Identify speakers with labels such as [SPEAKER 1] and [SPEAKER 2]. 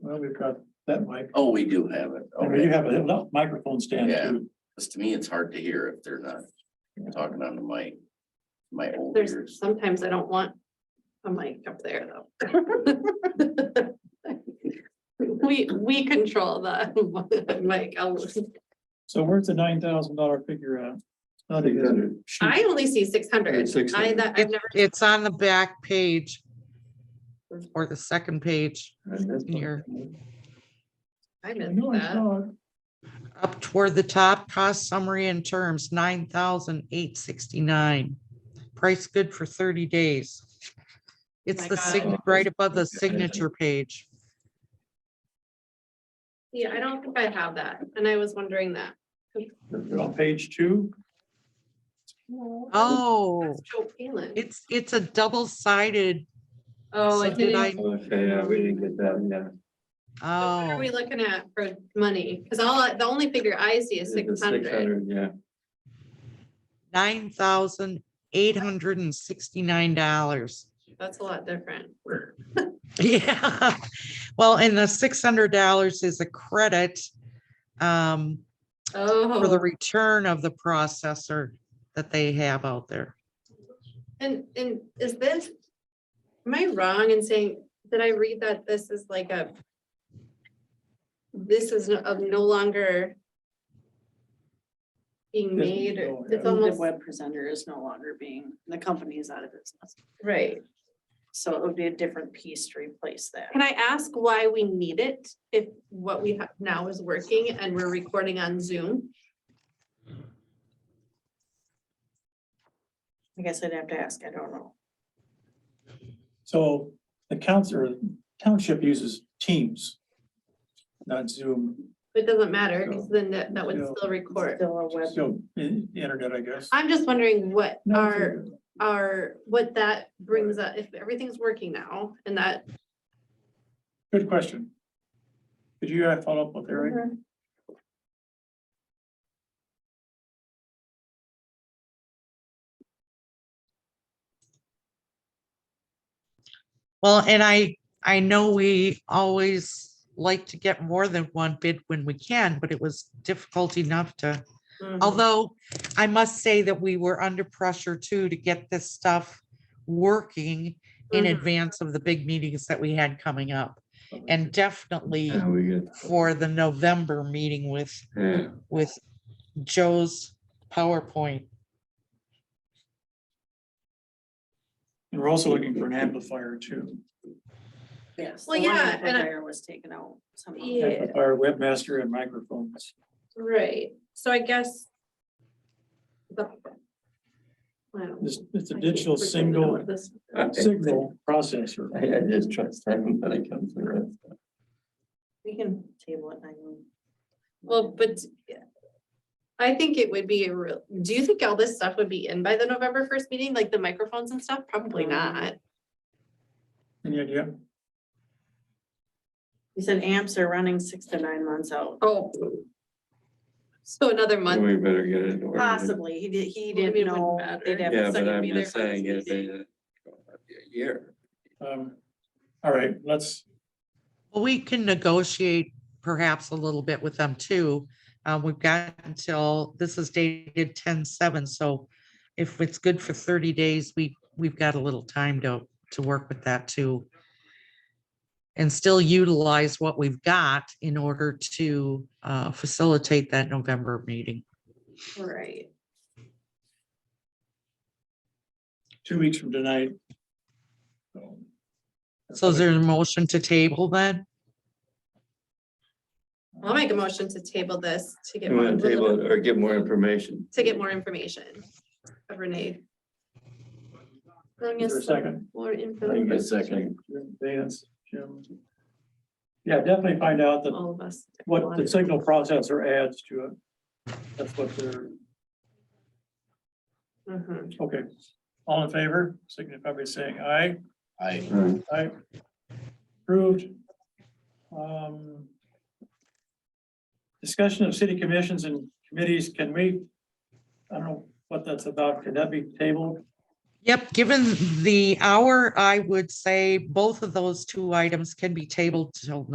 [SPEAKER 1] Well, we've got that mic.
[SPEAKER 2] Oh, we do have it.
[SPEAKER 1] I mean, you
[SPEAKER 2] Okay,
[SPEAKER 1] have enough microphone stand
[SPEAKER 2] Yeah.
[SPEAKER 1] too.
[SPEAKER 2] because to me, it's hard to hear if they're not talking on the mic. My old
[SPEAKER 3] There's,
[SPEAKER 2] ears.
[SPEAKER 3] sometimes I don't want a mic up there though. We, we control the mic. I'll-
[SPEAKER 1] So where's the nine thousand dollar figure at? Not in the sheet.
[SPEAKER 3] I only see six hundred. I, that, I've never,
[SPEAKER 4] It's on the back page. Or the second page, here.
[SPEAKER 3] I
[SPEAKER 1] I
[SPEAKER 3] missed
[SPEAKER 1] know I
[SPEAKER 3] that.
[SPEAKER 1] saw it.
[SPEAKER 4] up toward the top, cost summary and terms, nine thousand eight sixty-nine. Price good for thirty days. It's
[SPEAKER 3] My
[SPEAKER 4] the
[SPEAKER 3] God.
[SPEAKER 4] sign, right above the signature page.
[SPEAKER 3] Yeah, I don't think I have that. And I was wondering that.
[SPEAKER 1] On page two,
[SPEAKER 4] Oh,
[SPEAKER 3] That's Joe Palin.
[SPEAKER 4] it's, it's a double-sided,
[SPEAKER 3] Oh,
[SPEAKER 4] so
[SPEAKER 3] I
[SPEAKER 4] did I,
[SPEAKER 3] didn't.
[SPEAKER 5] Okay, yeah, we didn't get that, yeah.
[SPEAKER 3] so What are
[SPEAKER 4] oh,
[SPEAKER 3] we looking at for money? Cause all, I- the only figure I see is
[SPEAKER 5] It's the
[SPEAKER 3] six hundred.
[SPEAKER 5] 600, Yeah,
[SPEAKER 4] nine thousand eight hundred and sixty-nine dollars.
[SPEAKER 3] That's a lot different.
[SPEAKER 4] Yeah, well, and the six hundred dollars is a credit um, for the
[SPEAKER 3] Oh,
[SPEAKER 4] return of the processor that they have out there.
[SPEAKER 3] and, and is this, am I wrong in saying, did I read that this is like a, this is no- of no longer being
[SPEAKER 1] Yes,
[SPEAKER 3] made,
[SPEAKER 1] no,
[SPEAKER 3] or
[SPEAKER 1] yeah.
[SPEAKER 3] it's
[SPEAKER 6] The
[SPEAKER 3] almost,
[SPEAKER 6] web presenter is no longer being, the company is out of business.
[SPEAKER 3] right.
[SPEAKER 6] So it would be a different piece to replace that.
[SPEAKER 3] Can I ask why we need it if what we have now is working and we're recording on Zoom?
[SPEAKER 6] I guess I'd have to ask, I don't know.
[SPEAKER 1] so the council, or township uses Teams. Not Zoom,
[SPEAKER 3] It doesn't matter, because then that, that would
[SPEAKER 1] Yeah.
[SPEAKER 3] still record.
[SPEAKER 6] Still a web.
[SPEAKER 1] so in- internet, I guess.
[SPEAKER 3] I'm just wondering what
[SPEAKER 1] No, it's
[SPEAKER 3] our,
[SPEAKER 1] internet.
[SPEAKER 3] our, what that brings up, if everything's working now and that,
[SPEAKER 1] Good question. Could you uh, follow up with Eric?
[SPEAKER 4] Well, and I, I know we always like to get more than one bid when we can, but it was difficult enough to
[SPEAKER 3] Mhm.
[SPEAKER 4] Although I must say that we were under pressure too to get this stuff working in
[SPEAKER 3] Mhm.
[SPEAKER 4] advance of the big meetings that we had coming up. And definitely
[SPEAKER 5] yeah, we get,
[SPEAKER 4] for the November meeting with,
[SPEAKER 5] yeah,
[SPEAKER 4] with Joe's PowerPoint.
[SPEAKER 1] And we're also looking for an amplifier too.
[SPEAKER 6] Yes.
[SPEAKER 3] Well,
[SPEAKER 6] the one
[SPEAKER 3] yeah,
[SPEAKER 6] with the
[SPEAKER 3] and I-
[SPEAKER 6] wire Was taken out. somehow.
[SPEAKER 3] Yeah.
[SPEAKER 1] Amplifier, webmaster and microphones.
[SPEAKER 3] right, so I guess. the- Wow.
[SPEAKER 1] It's, it's a
[SPEAKER 3] I can't
[SPEAKER 1] digital
[SPEAKER 3] freaking
[SPEAKER 1] single
[SPEAKER 3] know this.
[SPEAKER 1] signal processor.
[SPEAKER 5] I I just trust him when it comes to that. stuff.
[SPEAKER 6] We can table it. I mean.
[SPEAKER 3] Well, but yeah. I think it would be a real, do you think all this stuff would be in by the November first meeting, like the microphones and stuff? Probably
[SPEAKER 6] Mm.
[SPEAKER 3] not.
[SPEAKER 1] Any idea?
[SPEAKER 6] You said amps are running six to nine months out.
[SPEAKER 3] Oh. So another month,
[SPEAKER 5] We better get it. ordered.
[SPEAKER 6] Possibly, he did, he
[SPEAKER 3] Well, I mean, it
[SPEAKER 6] didn't
[SPEAKER 3] wouldn't
[SPEAKER 6] know.
[SPEAKER 3] matter.
[SPEAKER 6] they'd have a
[SPEAKER 5] Yeah, but
[SPEAKER 6] second
[SPEAKER 5] I'm
[SPEAKER 6] meter
[SPEAKER 5] just
[SPEAKER 6] for this
[SPEAKER 5] saying, if
[SPEAKER 6] meeting.
[SPEAKER 5] they, a year,
[SPEAKER 1] Um, all right, let's,
[SPEAKER 4] We can negotiate perhaps a little bit with them too. Uh, we've got until, this is dated 10-7. so if it's good for thirty days, we, we've got a little time to, to work with that too. And still utilize what we've got in order to, uh, facilitate that November meeting.
[SPEAKER 3] right?
[SPEAKER 1] two weeks from tonight. Um, So
[SPEAKER 4] So is there a motion to table then?
[SPEAKER 3] I'll make a motion to table this to get.
[SPEAKER 5] you
[SPEAKER 3] more
[SPEAKER 5] want to table it or get more information.
[SPEAKER 3] To get more information of Renee.
[SPEAKER 1] Is there
[SPEAKER 3] Bring
[SPEAKER 1] a
[SPEAKER 3] us some
[SPEAKER 1] second?
[SPEAKER 3] More
[SPEAKER 5] Bring
[SPEAKER 3] info,
[SPEAKER 5] us- Second.
[SPEAKER 1] Vance, Jim. Yeah, definitely find out that
[SPEAKER 3] all of us.
[SPEAKER 1] what the signal processor adds to it. That's what they're,
[SPEAKER 3] Mhm.
[SPEAKER 1] okay. All in favor, signify by saying aye.
[SPEAKER 2] I,
[SPEAKER 5] Right.
[SPEAKER 1] Aye. Approved. Um, Discussion of city commissions and committees, can we, I don't know what that's about, can that be tabled?
[SPEAKER 4] Yep, given the hour, I would say both of those two items can be tabled till